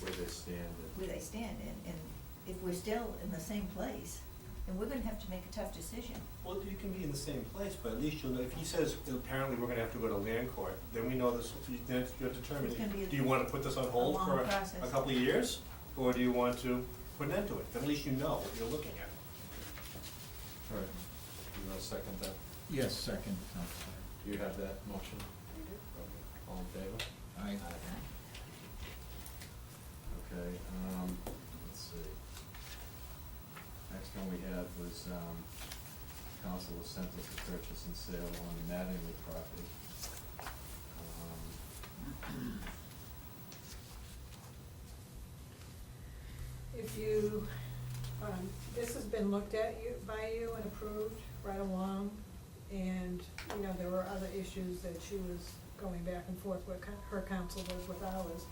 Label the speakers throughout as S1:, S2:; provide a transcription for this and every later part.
S1: where they stand and.
S2: where they stand, and, and if we're still in the same place, then we're gonna have to make a tough decision.
S1: Well, you can be in the same place, but at least you'll know, if he says, apparently we're gonna have to go to land court, then we know this, then you're determined,
S2: It's gonna be a-
S1: do you wanna put this on hold
S2: long
S1: for a- a
S2: process.
S1: couple of years? Or do you want to put an end to it? Then at least you know what you're looking at.
S3: All right,
S1: You want to second that?
S3: yes, second, I'm sorry.
S1: Do you have that motion? All in favor?
S3: I,
S1: Okay, um, let's see. Next one we had was, um, council was sent us the purchase and sale on the Mattingly property. Um,
S4: If you, um, this has been looked at you, by you and approved right along, and, you know, there were other issues that she was going back and forth with, co- her counsel was with ours.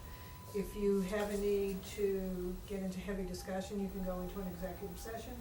S4: If you have a need to get into heavy discussion, you can go into an executive session,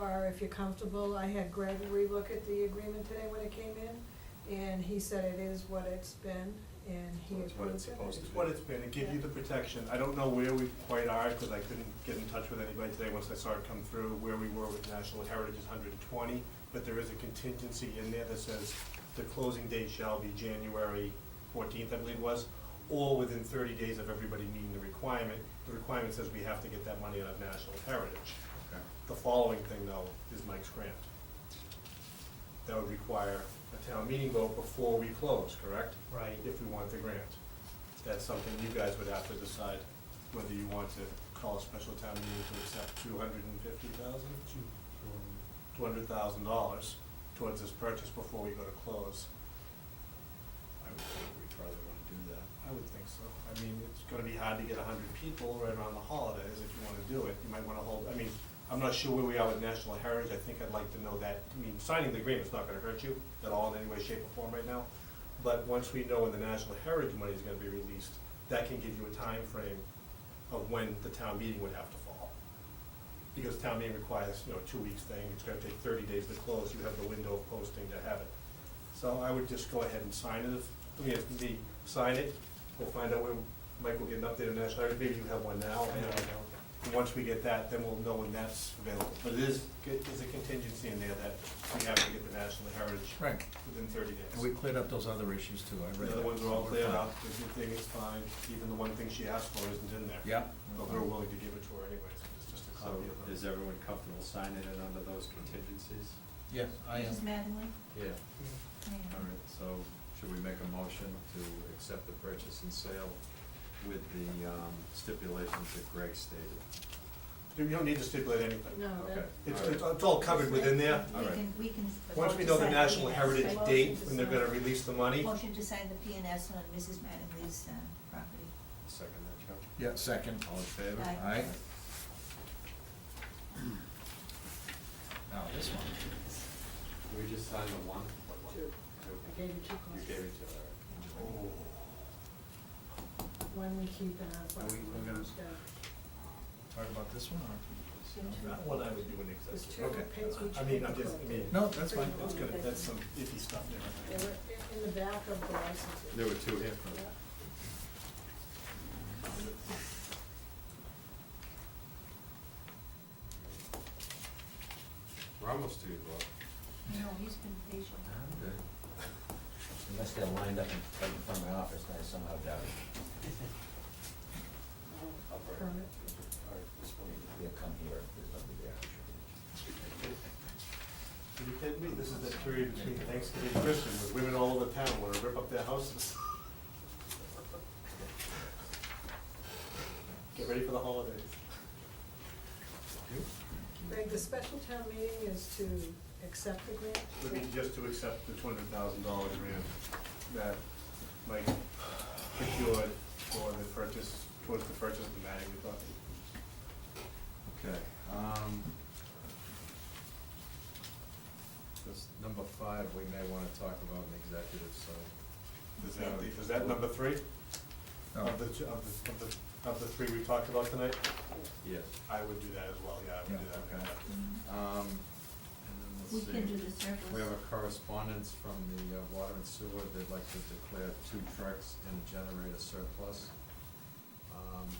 S4: or if you're comfortable, I had Greg relook at the agreement today when it came in, and he said it is what it's been, and he
S5: So
S4: approved it.
S5: it's what it's supposed
S1: It's what it's been, it gives you the protection, I don't know where we quite are, cause I couldn't get in touch with anybody today once I saw it come through, where we were with National Heritage is hundred and twenty, but there is a contingency in there that says the closing date shall be January fourteenth, I believe it was, or within thirty days of everybody meeting the requirement, the requirement says we have to get that money out of National Heritage.
S3: okay.
S1: The following thing though is Mike's grant. That would require a town meeting vote before we close, correct?
S5: Right.
S1: If we want the grant. That's something you guys would have to decide whether you want to call a special town meeting to accept two hundred and fifty thousand, two hundred thousand dollars towards this purchase before we go to close. I would think we probably wanna do that. I would think so. I mean, it's gonna be hard to get a hundred people right around the holidays if you wanna do it. You might wanna hold, I mean, I'm not sure where we are with National Heritage. I think I'd like to know that. I mean, signing the agreement's not gonna hurt you at all in any way, shape, or form right now. But once we know when the National Heritage money is gonna be released, that can give you a time frame of when the town meeting would have to fall. Because town meeting requires, you know, two weeks thing, it's gonna take thirty days to close, you have the window of posting to have it. So I would just go ahead and sign it, if, I mean, if we sign it, we'll find out when, Mike will get an update on National Heritage, maybe you have one now, I don't know. And once we get that, then we'll know when that's available, but it is, there's a contingency in there that we have to get the National Heritage
S3: Right,
S1: within thirty days.
S3: and we cleared up those other issues too, I read
S1: The other
S3: that.
S1: ones are
S3: so
S1: all
S3: we're
S1: cleared
S3: fine.
S1: up, the good thing is fine, even the one thing she asked for isn't in there.
S3: Yeah. we're
S1: But we're
S3: fine.
S1: willing to give it to her anyways, it's just a
S5: So
S1: copy of them.
S5: is everyone comfortable signing it under those contingencies?
S3: Yes, I am.
S2: Mrs. Mattingly?
S5: Yeah.
S2: Yeah.
S5: All right, so should we make a motion to accept the purchase and sale with the um, stipulations that Greg stated?
S1: You don't need to stipulate anything.
S4: No,
S5: Okay.
S4: that,
S1: It's,
S5: all right.
S1: it's it's all covered within there.
S2: We
S5: Alright.
S2: can, we can.
S1: Once we know the
S2: decide
S1: National
S2: P&S.
S1: Heritage
S4: Motion
S1: date,
S4: to
S1: when they're gonna
S4: sign.
S1: release the money,
S2: Motion to sign the P and S on Mrs. Mattingly's, uh, property.
S5: Second that, Joe?
S3: Yeah, second.
S5: All in favor?
S2: Aye.
S3: Aye. Now, this one,
S5: We just signed the one?
S4: Two. I
S5: Two.
S4: gave you two
S5: You
S4: copies.
S5: gave it to her.
S1: Oh,
S4: One we keep and uh, one
S5: We- we're
S4: we
S5: gonna-
S4: don't.
S3: talk about this one or?
S1: that one I would do in
S4: There's
S1: executive.
S4: two
S3: Okay.
S4: pins which.
S1: I mean, I'm just, I mean.
S3: No, that's fine.
S1: It's gonna, that's some iffy stuff
S4: They
S1: there. I
S4: were
S1: think.
S4: in- in the back of the licenses.
S5: There were two here.
S4: Yeah.
S5: We're almost to you, Bob.
S2: No, he's been patient.
S6: Unless they're lined up in right in front of my office, I somehow doubt it.
S4: Permit.
S5: All right, this one.
S6: They'll come here, if there's nobody there. I'm
S1: Are you kidding me? This is the period between Thanksgiving and Christmas, where women all over town wanna rip up their houses. Get ready for the holidays.
S4: Greg, the special town meeting is to accept the grant?
S1: Would be just to accept the two hundred thousand dollar grant that Mike procured for the purchase, towards the purchase of the Mattingly property.
S5: Okay, um. This, number five, we may wanna talk about in executive, so.
S1: Is that, the- is that number three
S3: No.
S1: of the, two- of the, of the, of the three we talked about tonight?
S5: Yes.
S1: I would do that as well, yeah, I would do
S5: Yeah,
S1: that.
S5: okay.
S2: Mhm.
S5: Um, and then let's see.
S2: We can do the surplus.
S5: We have a correspondence from the uh, water and sewer, they'd like to declare two trucks and a generator surplus. Um,